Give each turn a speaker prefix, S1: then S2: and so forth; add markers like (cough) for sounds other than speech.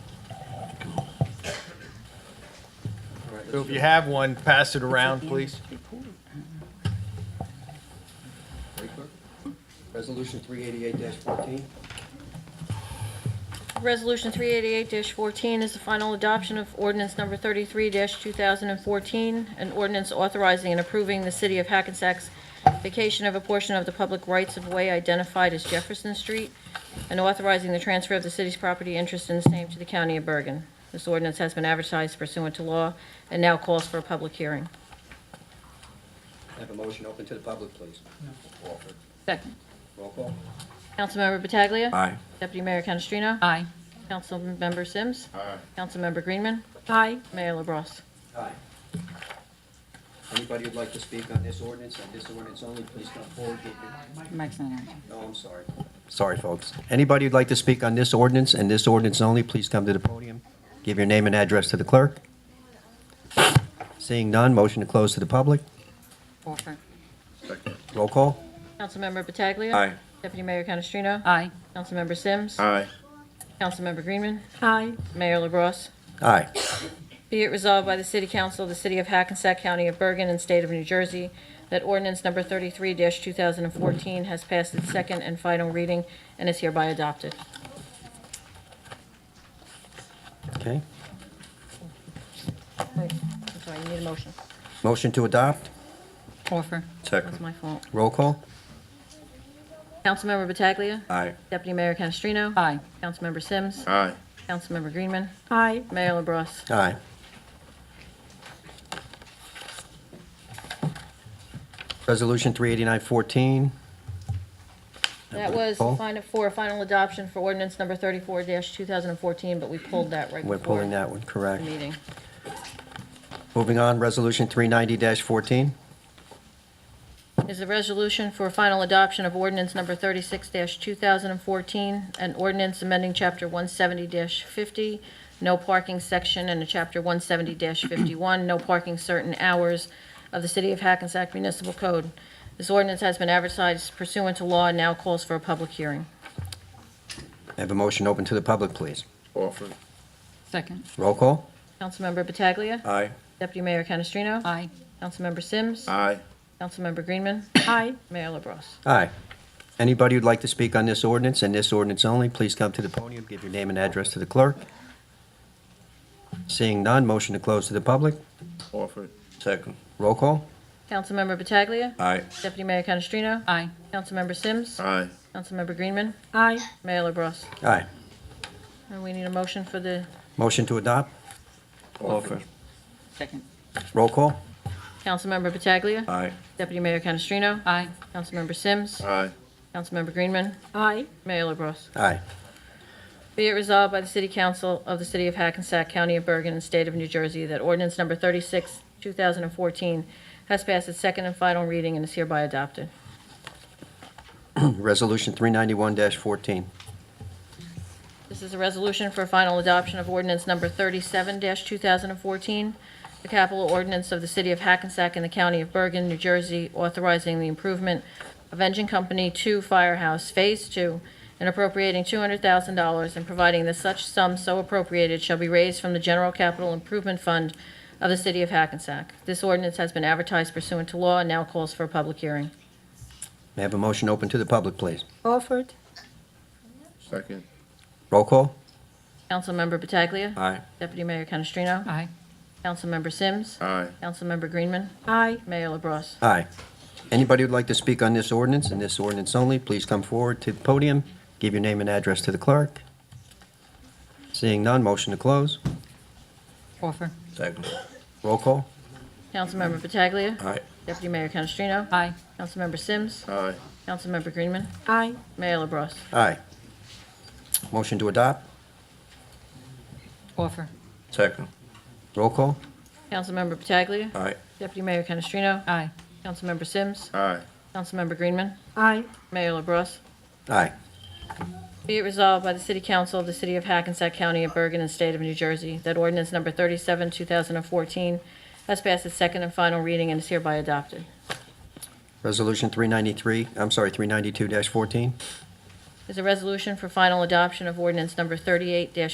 S1: So if you have one, pass it around, please.
S2: Very clear. Resolution three eighty-eight fourteen,
S3: Resolution 388-14 is the final adoption of ordinance number 33-2014, an ordinance authorizing and approving the City of Hackensack's vacation of a portion of the public rights-of-way identified as Jefferson Street, and authorizing the transfer of the city's property interest in the same to the County of Bergen. This ordinance has been advertised pursuant to law and now calls for a public hearing.
S2: have a motion open to the public, please. Offered.
S4: Second.
S2: Roll call.
S3: Councilmember Pataglia.
S5: Aye.
S3: Deputy Mayor Canestrino.
S4: Aye.
S3: Councilmember Sims. Aye. Councilmember Greenman. Aye. Mayor LaBrus.
S2: Aye. Anybody who'd like to speak on this ordinance, on this ordinance only, please come forward. Get your-
S4: Mike's not on.
S2: No, I'm sorry. Sorry, folks. Anybody who'd like to speak on this ordinance and this ordinance only, please come to the podium. Give your name and address to the clerk. Seeing none, motion to close to the public.
S4: Orford.
S2: Roll call.
S3: Councilmember Pataglia.
S5: Aye.
S3: Deputy Mayor Canestrino.
S4: Aye.
S3: Councilmember Sims.
S5: Aye.
S3: Councilmember Greenman. Aye. Mayor LaBrus.
S2: Aye.
S3: Be it resolved by the City Council of the City of Hackensack County of Bergen and State of New Jersey that ordinance number 33-2014 has passed its second and final reading and is hereby adopted.
S2: Okay.
S3: Wait, I'm sorry, you need a motion.
S2: Motion to adopt.
S4: Orford.
S3: That's
S5: Second.
S3: my fault.
S2: Roll call.
S3: Councilmember Pataglia.
S5: Aye.
S3: Deputy Mayor Canestrino.
S4: Aye.
S3: Councilmember Sims.
S5: Aye.
S3: Councilmember Greenman.
S4: Aye.
S3: Mayor LaBrus.
S2: Aye. Resolution 389-14.
S3: That was
S2: Paul?
S3: final, for final adoption for ordinance number 34-2014, but we pulled that right before.
S2: We're pulling that one,
S3: the
S2: correct.
S3: Meeting.
S2: Moving on, Resolution 390-14.
S3: Is the resolution for final adoption of ordinance number 36-2014, an ordinance amending Chapter 170-50, no parking section, and a Chapter 170-51, no parking certain hours of the City of Hackensack Municipal Code. This ordinance has been advertised pursuant to law and now calls for a public hearing.
S2: Have a motion open to the public, please.
S5: Orford.
S4: Second.
S2: Roll call.
S3: Councilmember Pataglia.
S5: Aye.
S3: Deputy Mayor Canestrino.
S4: Aye.
S3: Councilmember Sims.
S5: Aye.
S3: Councilmember Greenman.
S4: Aye.
S3: Mayor LaBrus.
S2: Aye. Anybody who'd like to speak on this ordinance and this ordinance only, please come to the podium, give your name and address to the clerk. Seeing none, motion to close to the public.
S5: Orford. Second.
S2: Roll call.
S3: Councilmember Pataglia.
S5: Aye.
S3: Deputy Mayor Canestrino.
S4: Aye.
S3: Councilmember Sims.
S5: Aye.
S3: Councilmember Greenman.
S4: Aye.
S3: Mayor LaBrus.
S2: Aye.
S3: And we need a motion for the
S2: Motion to adopt.
S5: Orford.
S4: Second.
S2: Roll call.
S3: Councilmember Pataglia.
S5: Aye.
S3: Deputy Mayor Canestrino.
S4: Aye.
S3: Councilmember Sims.
S5: Aye.
S3: Councilmember Greenman.
S4: Aye.
S3: Mayor LaBrus.
S2: Aye. (clears throat)
S3: Be it resolved by the City Council of the City of Hackensack, County of Bergen, and State of New Jersey that ordinance number 36, 2014 has passed its second and final reading and is hereby adopted.
S2: Resolution 391-14.
S3: This is a resolution for final adoption of ordinance number 37-2014, the capital ordinance of the City of Hackensack and the County of Bergen, New Jersey, authorizing the improvement of Engine Company 2 Firehouse Phase 2 and appropriating $200,000 and providing that such sum so appropriated shall be raised from the General Capital Improvement Fund of the City of Hackensack. This ordinance has been advertised pursuant to law and now calls for a public hearing.
S2: May I have a motion open to the public, please?
S4: Orford.
S5: Second.
S2: Roll call.
S3: Councilmember Pataglia.
S5: Aye.
S3: Deputy Mayor Canestrino.
S4: Aye.
S3: Councilmember Sims.
S5: Aye.
S3: Councilmember Greenman.
S4: Aye.
S3: Mayor LaBrus.
S2: Aye. Anybody who'd like to speak on this ordinance and this ordinance only, please come forward to the podium, give your name and address to the clerk. Seeing none, motion to close.
S4: Orford.
S5: Second.
S2: Roll call.
S3: Councilmember Pataglia.
S5: Aye.
S3: Deputy Mayor Canestrino.
S4: Aye.
S3: Councilmember Sims.
S5: Aye.
S3: Councilmember Greenman.
S4: Aye.
S3: Mayor LaBrus.
S2: Aye. Motion to adopt.
S4: Orford.
S5: Second.
S2: Roll call.
S3: Councilmember Pataglia.
S5: Aye.
S3: Deputy Mayor Canestrino.
S4: Aye.
S3: Councilmember Sims.
S5: Aye.
S3: Councilmember Greenman.
S4: Aye.
S3: Mayor LaBrus.
S2: Aye.
S3: Be it resolved by the City Council of the City of Hackensack County of Bergen and State of New Jersey that ordinance number 37, 2014 has passed its second and final reading and is hereby adopted.
S2: Resolution 393, I'm sorry, 392-14.
S3: Is a resolution for final adoption of ordinance number 38